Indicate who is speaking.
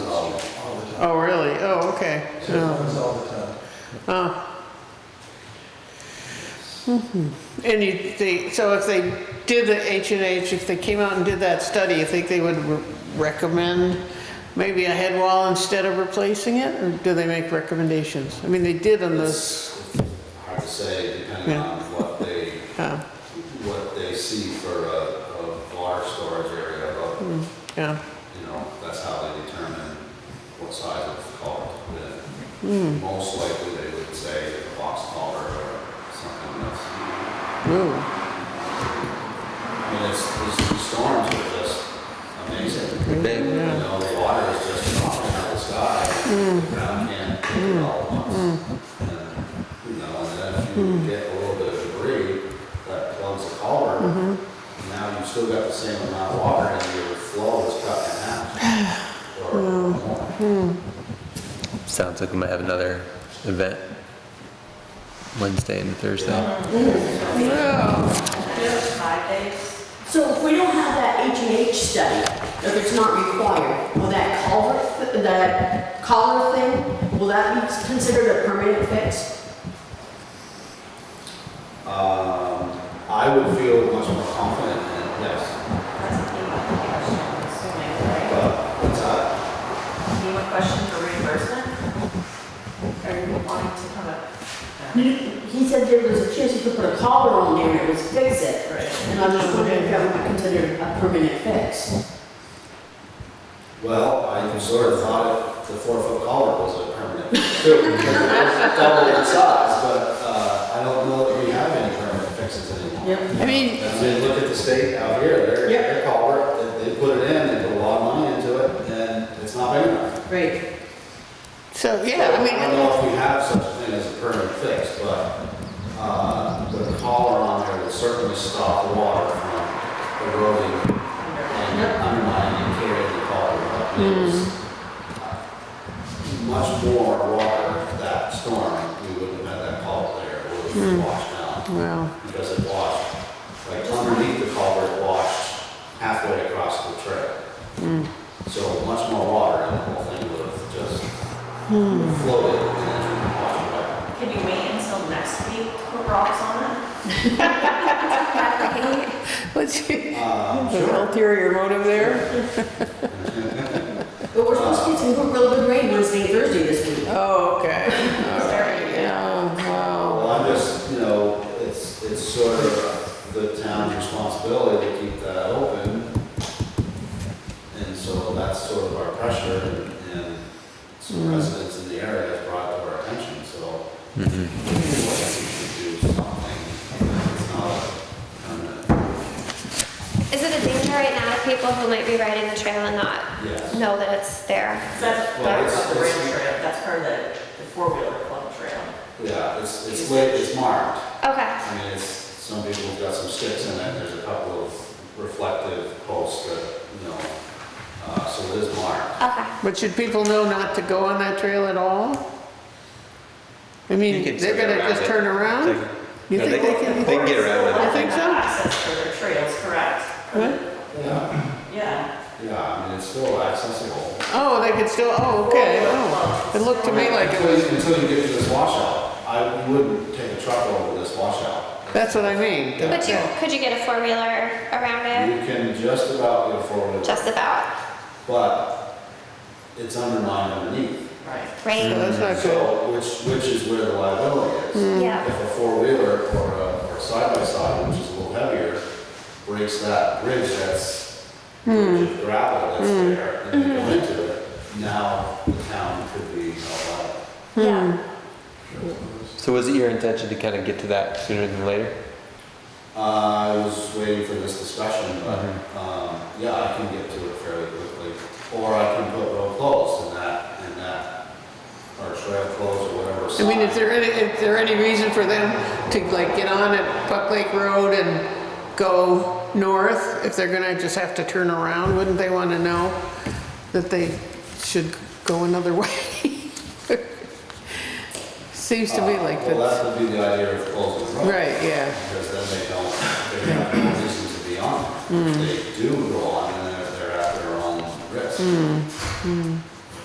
Speaker 1: Oh, really? Oh, okay.
Speaker 2: So it
Speaker 1: Oh.
Speaker 2: runs all the time.
Speaker 1: Oh. Mhm. And you, they, so if they did the H and H, if they came out and did that study, you think they would re- recommend maybe a head wall instead of replacing it? Or do they make recommendations? I mean, they did on those,
Speaker 3: It's hard to say, depending
Speaker 1: Yeah.
Speaker 3: on what they,
Speaker 1: uh,
Speaker 3: what they see for a, a large storage area, but,
Speaker 1: yeah.
Speaker 3: you know, that's how they determine what size of culvert to put in. Most likely, they would say a box culvert or something that's, I
Speaker 1: Ooh.
Speaker 3: mean, it's, these storms are just amazing.
Speaker 4: They-
Speaker 3: You know, the water is just dropping out of the sky, the ground can't take it all at once. And, You know, and then if you get a little bit of debris that plugs the culvert, now you've still got the same amount of water and your flow is cut in half. Or more.
Speaker 4: Sounds like we might have another event Wednesday and Thursday.
Speaker 5: So if we don't have that H and H study, if it's not required, will that culvert, th- that collar thing, will that be considered a permanent fix?
Speaker 3: Um, I would feel much more confident in, yes,
Speaker 6: Any
Speaker 3: but what's that?
Speaker 6: more questions for reimbursement? Are you wanting to come up?
Speaker 5: He said there was a chance you could put a collar on there and it would fix it. And I'm just wondering if that would be considered a permanent fix.
Speaker 3: Well, I sort of thought it, the four-foot collar was a permanent fix too, because it was double in size, but, uh, I don't know that we have any permanent fixes anymore.
Speaker 5: Yep.
Speaker 1: I mean,
Speaker 3: I mean, look at the state out here, their,
Speaker 5: Yep.
Speaker 3: their collar, they, they put it in, they put a lot of money into it, and it's not big enough.
Speaker 5: Great.
Speaker 1: so, yeah, I
Speaker 3: I don't
Speaker 1: mean,
Speaker 3: know if we have such a thing as a permanent fix, but, uh, the collar on there will certainly stop the water from eroding and undermining and carrying the collar up.
Speaker 1: Mm-hmm.
Speaker 3: There's Much more water that storm, we wouldn't have had that collar there, it would
Speaker 1: Hmm.
Speaker 3: have washed out
Speaker 1: well,
Speaker 3: because it washed, like underneath the culvert washed halfway across the trail. So much more water and the whole thing would have just floated and then washed away.
Speaker 6: Can you wait until next week to put rocks on it?
Speaker 1: let's see,
Speaker 3: Uh,
Speaker 1: an
Speaker 3: sure.
Speaker 1: ulterior motive there?
Speaker 5: But we're supposed to get some good- real good rain Wednesday, and Thursday this week.
Speaker 1: Oh, okay, all right, yeah, wow.
Speaker 3: Well, I'm just, you know, it's, it's sort of the town's responsibility to keep that open. And so that's sort of our pressure and- and some residents in the area have brought to our attention, so. I think we should do something that's not a permanent.
Speaker 7: Is it a danger right now to people who might be riding the trail and not
Speaker 3: Yes.
Speaker 7: know that it's there?
Speaker 6: That's
Speaker 3: Well,
Speaker 6: part
Speaker 3: it's-
Speaker 6: of the rail
Speaker 3: it's-
Speaker 6: trail, that's part of the, the four-wheeler club trail.
Speaker 3: Yeah, it's, it's lit, it's marked.
Speaker 7: Okay,
Speaker 3: I mean, it's, some people have got some sticks in it, there's a couple of reflective posts that, you know, uh, so it is marked.
Speaker 7: okay.
Speaker 1: But should people know not to go on that trail at all? I mean,
Speaker 4: You can
Speaker 1: they're
Speaker 4: turn
Speaker 1: gonna
Speaker 4: around
Speaker 1: just
Speaker 4: it.
Speaker 1: turn around?
Speaker 4: They-
Speaker 1: You
Speaker 4: no,
Speaker 1: think they can?
Speaker 4: They can get around
Speaker 1: I think so.
Speaker 6: Access for their trails, correct?
Speaker 1: What?
Speaker 3: Yeah,
Speaker 6: Yeah.
Speaker 3: yeah, I mean, it's still accessible.
Speaker 1: Oh, they could still, oh, okay, oh, it looked to me like it
Speaker 3: Until
Speaker 1: was,
Speaker 3: you, until you get to this washout, I wouldn't take a truck over this washout.
Speaker 1: that's what I mean.
Speaker 7: But you, could you get a four-wheeler around it?
Speaker 3: You can just about get a four-wheeler,
Speaker 7: Just about,
Speaker 3: but it's undermined underneath.
Speaker 6: Right.
Speaker 1: So
Speaker 7: right?
Speaker 1: that's not good.
Speaker 3: So, which, which is where the liability is. If
Speaker 7: Yeah,
Speaker 3: a four-wheeler or a, or side-by-side, which is a little heavier, breaks that bridge that's, bridge of gravel that's there, and you go into it, now the town could be held liable.
Speaker 7: yeah.
Speaker 4: it. So was it your intention to kind of get to that sooner than later?
Speaker 3: Uh, I was waiting for this discussion, but, um, yeah, I can get to it fairly quickly. Or I can put road closed in that, in that, or trail closed or whatever.
Speaker 1: I mean,
Speaker 3: sign.
Speaker 1: is there any, is there any reason for them to like get on at Buck Lake Road and go north? If they're gonna just have to turn around, wouldn't they wanna know that they should go another way? Seems to me
Speaker 3: Uh,
Speaker 1: like
Speaker 3: Well,
Speaker 1: that's,
Speaker 3: that would be the idea of closing the road.
Speaker 1: right, yeah.
Speaker 3: Because then they don't, they have no reason to be
Speaker 1: Hmm.
Speaker 3: on
Speaker 1: Hmm.
Speaker 3: it. If They do go on, and then they're at their own risk.